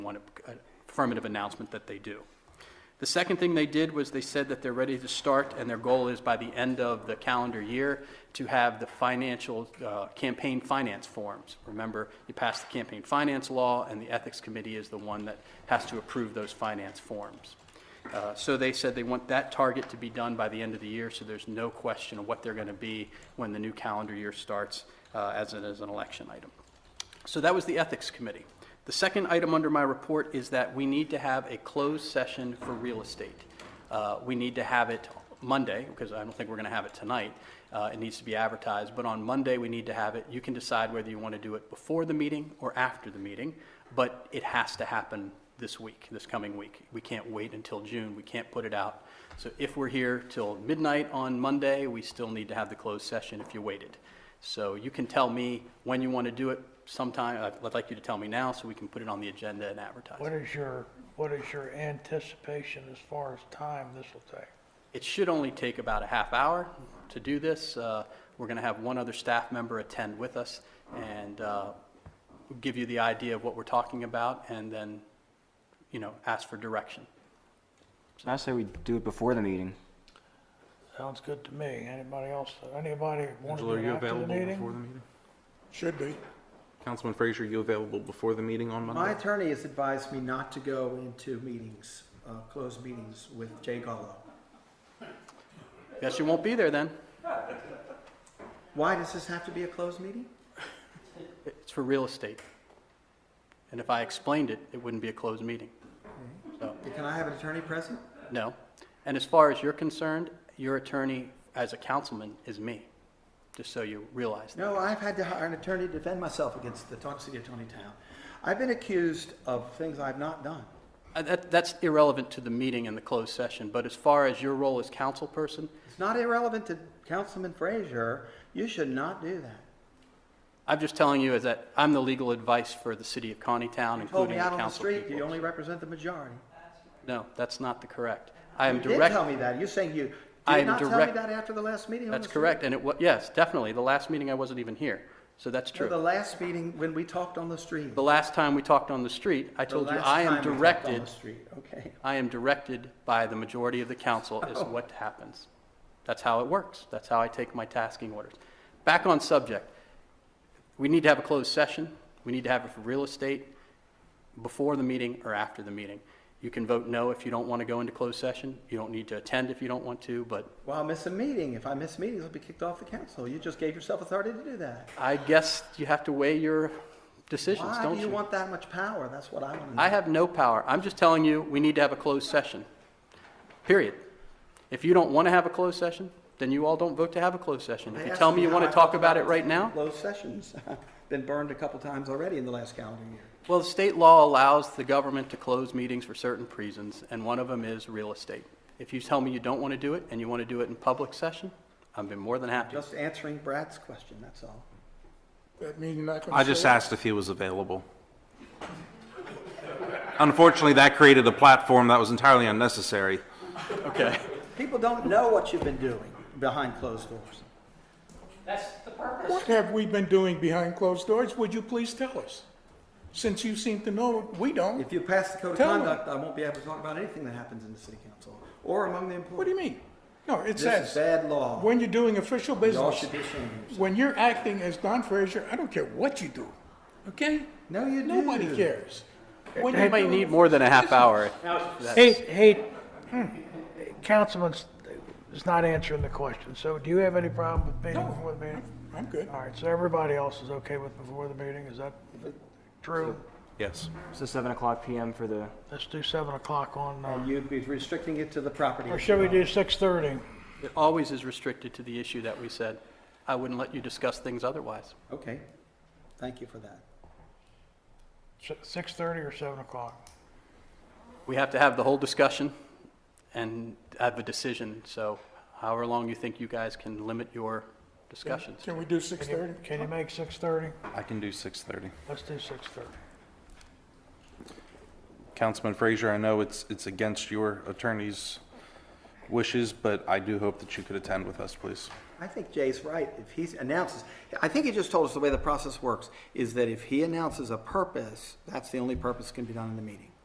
want an uh, affirmative announcement that they do. The second thing they did was they said that they're ready to start, and their goal is by the end of the calendar year to have the financial, uh, campaign finance forms. Remember, you passed the campaign finance law, and the Ethics Committee is the one that has to approve those finance forms. Uh, So they said they want that target to be done by the end of the year, so there's no question of what they're going to be when the new calendar year starts uh, as an, as an election item. So that was the Ethics Committee. The second item under my report is that we need to have a closed session for real estate. Uh, We need to have it Monday, because I don't think we're going to have it tonight. Uh, It needs to be advertised, but on Monday, we need to have it. You can decide whether you want to do it before the meeting or after the meeting, but it has to happen this week, this coming week. We can't wait until June, we can't put it out. So if we're here till midnight on Monday, we still need to have the closed session if you waited. So you can tell me when you want to do it sometime, I'd- I'd like you to tell me now so we can put it on the agenda and What advertise. is your, what is your anticipation as far as time this will take? It should only take about a half hour to do this. Uh, We're going to have one other staff member attend with us and uh, give you the idea of what we're talking about and then, you know, ask for direction. I say we do it before the meeting. Sounds good to me. Anybody else, anybody want Angela, to are be you after the available before meeting? the meeting? Should be. Councilman Frazier, you available before the meeting on My Monday? attorney has advised me not to go into meetings, uh, closed meetings with Jay Gallo. Guess you won't be there then. Why does this have to be a closed meeting? It's for real estate. And if I explained it, it wouldn't be a closed meeting. So, Can I have an attorney present? no. And as far as you're concerned, your attorney as a councilman is me, just so you realize that. No, I've had to hire an attorney to defend myself against the toxicity of Tony Town. I've been accused of things I've not done. Uh, that- That's irrelevant to the meeting and the closed session, but as far as your role as council person, It's not irrelevant to Councilman Frazier. You should not do that. I'm just telling you is that I'm the legal advice for the city of Conneetown, You told including me the out on the council street, you people. only represent the majority. No, that's not the correct. I am You did direct, tell me that. You're saying you I am did not tell me direct- that after the last meeting on the that's street? correct, and it was, yes, definitely. The last meeting, I wasn't even here, so that's No, true. The last meeting, when we talked on the street. The last time we talked on the street, I The told you last I time am we talked on directed, the street, Okay. I am directed by the majority of the council Oh. is what happens. That's how it works. That's how I take my tasking orders. Back on subject, we need to have a closed session. We need to have it for real estate before the meeting or after the meeting. You can vote no if you don't want to go into closed session. You don't need to attend if you don't want to, but Well, I'll miss a meeting. If I miss meetings, I'll be kicked off the council. You just gave yourself authority to do that. I guess you have to weigh your decisions, Why don't do you want that much power? That's what I want to know. I have no power. I'm just telling you, we need to have a closed session. Period. If you don't want to have a closed session, then you all don't vote to have a closed session. If They you asked tell me me you how want I to talk felt about it about right now, Closed sessions. Been burned a couple times already in the last calendar year. well, the state law allows the government to close meetings for certain reasons, and one of them is real estate. If you tell me you don't want to do it and you want to do it in public session, I've been more than happy. Just answering Brad's question, that's all. That means you're not going to. I just asked if he was available. Unfortunately, that created a platform that was entirely unnecessary. Okay. People don't know what you've been doing behind closed doors. What have we been doing behind closed doors? Would you please tell us? Since you seem to know, we don't. If you pass the code of Tell them. conduct, I won't be able to talk about anything that happens in the city council or among the employees. What do you mean? No, it This is says, bad law. when you're doing official Y'all business, should be ashamed of yourselves. when you're acting as Don Frazier, I don't care what you do, okay? No, you do. Nobody cares. When You you're might doing need more than a half hour. Hey, hey, hmm, Councilman's is not answering the question. So do you have any problem with meeting No. before the meeting? I'm good. All right, so everybody else is okay with before the meeting? Is that true? Yes. So seven o'clock PM for the, Let's do 7 o'clock on, And uh, Um, You'd be restricting it to the property. or issue. should we do 6:30? It always is restricted to the issue that we said. I wouldn't let you discuss things otherwise. Okay, thank you for that. Si- 6:30 or 7 o'clock? We have to have the whole discussion and have a decision, so however long you think you guys can limit your discussions. Can we Can do you- 6:30? Can you make 6:30? I can do 6:30. Let's do 6:30. Councilman Frazier, I know it's, it's against your attorney's wishes, but I do hope that you could attend with us, please. I think Jay's right. If he announces, I think he just told us the way the process works, is that if he announces a purpose, that's the only purpose that can be done in the meeting.